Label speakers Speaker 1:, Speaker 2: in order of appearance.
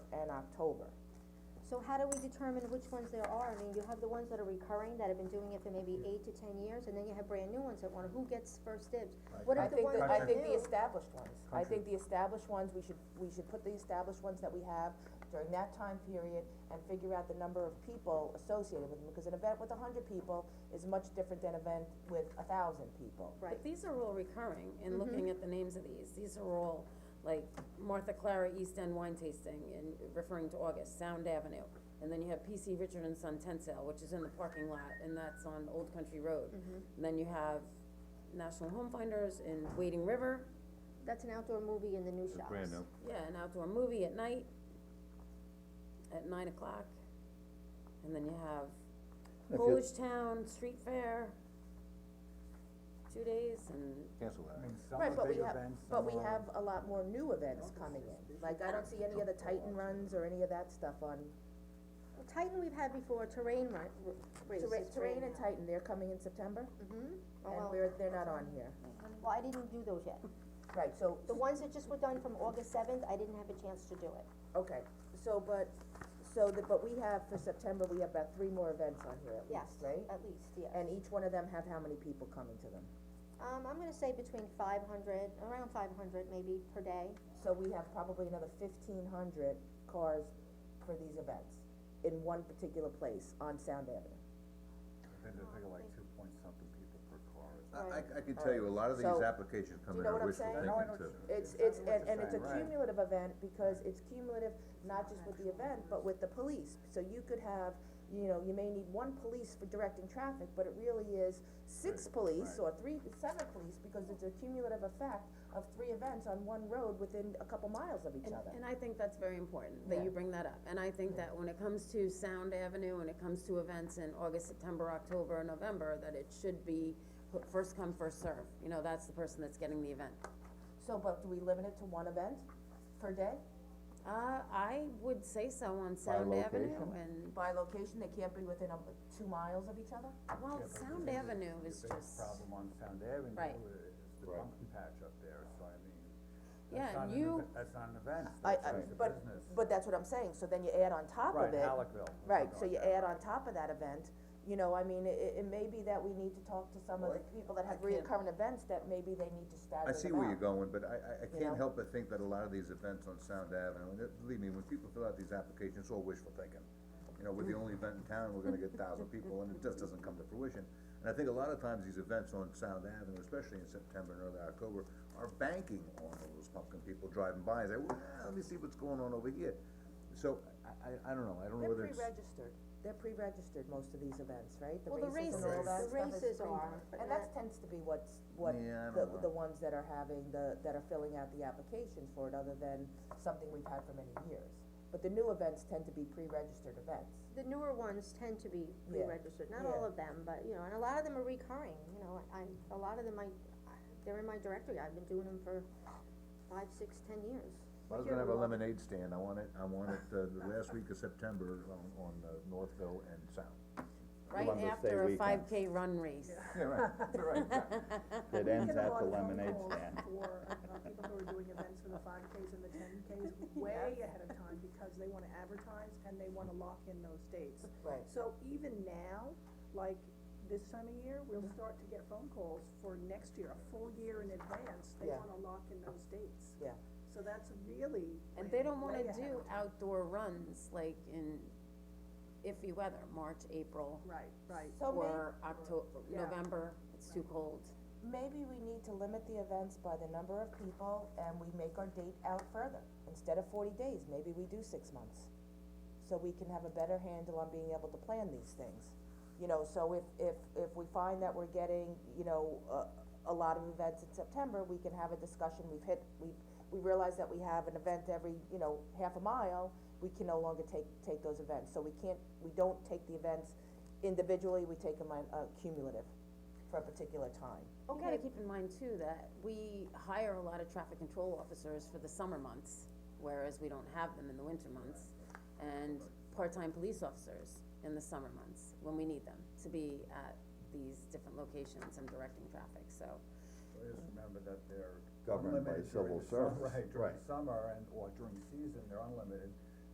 Speaker 1: October.
Speaker 2: So how do we determine which ones there are? I mean, you have the ones that are recurring, that have been doing it for maybe eight to ten years, and then you have brand new ones that want, who gets first dibs? What
Speaker 1: I
Speaker 2: if the
Speaker 1: think
Speaker 2: ones
Speaker 1: the,
Speaker 2: that
Speaker 1: I
Speaker 2: are
Speaker 1: think the
Speaker 2: new,
Speaker 1: established ones, I think the established ones, we should, we should put the established ones that we have during that time period and figure out the number of people associated with them, because an event with a hundred people is much different than an event with a thousand people.
Speaker 2: right,
Speaker 3: But these are all recurring, and looking at the names of these, these are all, like Martha Clara East End Wine Tasting, and referring to August, Sound Avenue. And then you have PC Richard and Son Tent Sale, which is in the parking lot, and that's on Old Country Road. And then you have National Home Finders in Wading River,
Speaker 2: that's an outdoor movie in the new shops.
Speaker 4: brand new.
Speaker 3: yeah, an outdoor movie at night, at nine o'clock. And then you have
Speaker 5: If you-
Speaker 3: Polish Town Street Fair, two days, and
Speaker 4: Cancel
Speaker 5: I
Speaker 4: that.
Speaker 5: mean, some
Speaker 1: Right,
Speaker 5: are
Speaker 1: but we
Speaker 5: big
Speaker 1: have,
Speaker 5: events,
Speaker 1: but
Speaker 5: some
Speaker 1: we
Speaker 5: are,
Speaker 1: have a lot more new events coming in, like, I don't see any of the Titan runs or any of that stuff on,
Speaker 2: Well, Titan we've had before, terrain ri- r- races,
Speaker 1: Terra- Terrain
Speaker 2: right
Speaker 1: and
Speaker 2: now.
Speaker 1: Titan, they're coming in September,
Speaker 2: Oh,
Speaker 1: and
Speaker 2: well,
Speaker 1: we're, they're not on here,
Speaker 2: Well, I didn't do those yet.
Speaker 1: right, so,
Speaker 2: The ones that just were done from August seventh, I didn't have a chance to do it.
Speaker 1: Okay, so, but, so that, but we have, for September, we have about three more events on here at
Speaker 2: Yes,
Speaker 1: least, right?
Speaker 2: at least, yes.
Speaker 1: And each one of them have how many people coming to them?
Speaker 2: Um, I'm gonna say between five hundred, around five hundred maybe per day.
Speaker 1: So we have probably another fifteen hundred cars for these events in one particular place on Sound Avenue.
Speaker 5: Then they pay like two point something people per car.
Speaker 4: I, I- I can tell you, a lot of these
Speaker 1: So,
Speaker 4: applications come
Speaker 1: do you
Speaker 4: in
Speaker 1: know what
Speaker 4: are
Speaker 1: I'm
Speaker 4: wishful
Speaker 1: saying?
Speaker 5: No, I
Speaker 4: thinking
Speaker 5: know
Speaker 4: too.
Speaker 5: what
Speaker 1: It's,
Speaker 5: you're
Speaker 1: it's,
Speaker 5: saying,
Speaker 1: and,
Speaker 5: what
Speaker 1: and
Speaker 5: you're
Speaker 1: it's a
Speaker 5: saying, right.
Speaker 1: cumulative event, because it's cumulative, not just with the event, but with the police, so you could have, you know, you may need one police for directing traffic, but it really is six police, or three, seven police, because it's a cumulative effect of three events on one road within a couple miles of each
Speaker 3: And,
Speaker 1: other.
Speaker 3: and I think that's very important, that
Speaker 1: Yeah.
Speaker 3: you bring that up, and I think that when it comes to Sound Avenue, when it comes to events in August, September, October, and November, that it should be wh- first come, first serve, you know, that's the person that's getting the event.
Speaker 1: So, but do we limit it to one event per day?
Speaker 3: Uh, I would say so on Sound Avenue,
Speaker 5: location?
Speaker 3: and,
Speaker 1: By location, they can't be within, um, two miles of each other?
Speaker 3: well,
Speaker 5: Yeah, but
Speaker 3: Sound
Speaker 5: the-
Speaker 3: Avenue is
Speaker 5: The
Speaker 3: just,
Speaker 5: biggest problem on Sound Avenue
Speaker 3: Right.
Speaker 5: is the
Speaker 4: Right.
Speaker 5: pumpkin patch up there, so I mean,
Speaker 3: Yeah,
Speaker 5: that's not an,
Speaker 3: you-
Speaker 5: eve- that's not an event,
Speaker 1: I,
Speaker 5: that's
Speaker 1: I,
Speaker 5: just a business.
Speaker 1: but, but that's what I'm saying, so then you add on top of
Speaker 5: Right,
Speaker 1: it.
Speaker 5: Halleckville. or
Speaker 1: Right, so
Speaker 5: something
Speaker 1: you
Speaker 5: like that.
Speaker 1: add on top of that event, you know, I mean, it, it may be that we need to talk to some of the
Speaker 4: Well, I-
Speaker 1: people that have
Speaker 3: I can't-
Speaker 1: reoccurring events, that maybe they need to stagger
Speaker 4: I
Speaker 1: them
Speaker 4: see where
Speaker 1: out.
Speaker 4: you're going, but I, I, I
Speaker 1: know?
Speaker 4: can't help but think that a lot of these events on Sound Avenue, and it- believe me, when people fill out these applications, it's all wishful thinking. You know, we're the only event in town, we're gonna get thousand people, and it just doesn't come to fruition. And I think a lot of times these events on Sound Avenue, especially in September and early October, are banking on all those pumpkin people driving by and say, well, let me see what's going on over here. So, I, I, I don't know, I don't
Speaker 1: They're
Speaker 4: know whether it's.
Speaker 1: pre-registered, they're pre-registered, most of these events, right?
Speaker 2: Well, the
Speaker 1: races and all that
Speaker 2: races- the
Speaker 1: stuff is
Speaker 2: races
Speaker 1: pre-
Speaker 2: are, but
Speaker 1: And that
Speaker 2: not-
Speaker 1: tends to be what's, what,
Speaker 4: Yeah, I
Speaker 1: the,
Speaker 4: don't know.
Speaker 1: the ones that are having, the, that are filling out the applications for it, other than something we've had for many years. But the new events tend to be pre-registered events.
Speaker 2: The newer ones tend to be
Speaker 1: Yeah.
Speaker 2: pre-registered, not
Speaker 1: Yeah.
Speaker 2: all of them, but, you know, and a lot of them are recurring, you know, I, a lot of them I, they're in my directory, I've been doing them for five, six, ten years.
Speaker 4: I was gonna have a lemonade stand, I want it, I want it, uh, the last week of September on, on uh, Northville and Sound.
Speaker 3: right
Speaker 6: Columbus Day
Speaker 3: after a
Speaker 6: weekend.
Speaker 3: five K run race.
Speaker 4: Yeah, right, right, exactly.
Speaker 6: It ends at the lemonade stand.
Speaker 7: For, uh, people who are doing events for the five Ks and the ten Ks way ahead of time because they wanna advertise and they wanna lock in those dates.
Speaker 1: Right.
Speaker 7: So even now, like this time of year, we'll start to get phone calls for next year, a full year in advance, they
Speaker 1: Yeah.
Speaker 7: wanna lock in those dates.
Speaker 1: Yeah.
Speaker 7: So that's really.
Speaker 3: And they don't
Speaker 7: way
Speaker 3: wanna
Speaker 7: ahead
Speaker 3: do
Speaker 7: of time.
Speaker 3: outdoor runs, like in iffy weather, March, April.
Speaker 7: Right, right.
Speaker 1: So may-
Speaker 3: or Octo-
Speaker 7: Yeah.
Speaker 3: November, it's too cold.
Speaker 1: maybe we need to limit the events by the number of people and we make our date out further. Instead of forty days, maybe we do six months. So we can have a better handle on being able to plan these things. You know, so if, if, if we find that we're getting, you know, a, a lot of events in September, we can have a discussion, we've hit, we, we realize that we have an event every, you know, half a mile, we can no longer take, take those events. So we can't, we don't take the events individually, we take them on, uh, cumulative for a particular time.
Speaker 3: You gotta keep in mind too, that we hire a lot of traffic control officers for the summer months, whereas we don't have them in the winter months. And part-time police officers in the summer months, when we need them, to be at these different locations and directing traffic, so.
Speaker 5: I just remember that they're
Speaker 6: Governed by
Speaker 5: unlimited during
Speaker 6: civil
Speaker 5: the summer,
Speaker 6: service,
Speaker 5: right, during
Speaker 6: right.
Speaker 5: summer and, or during season, they're unlimited,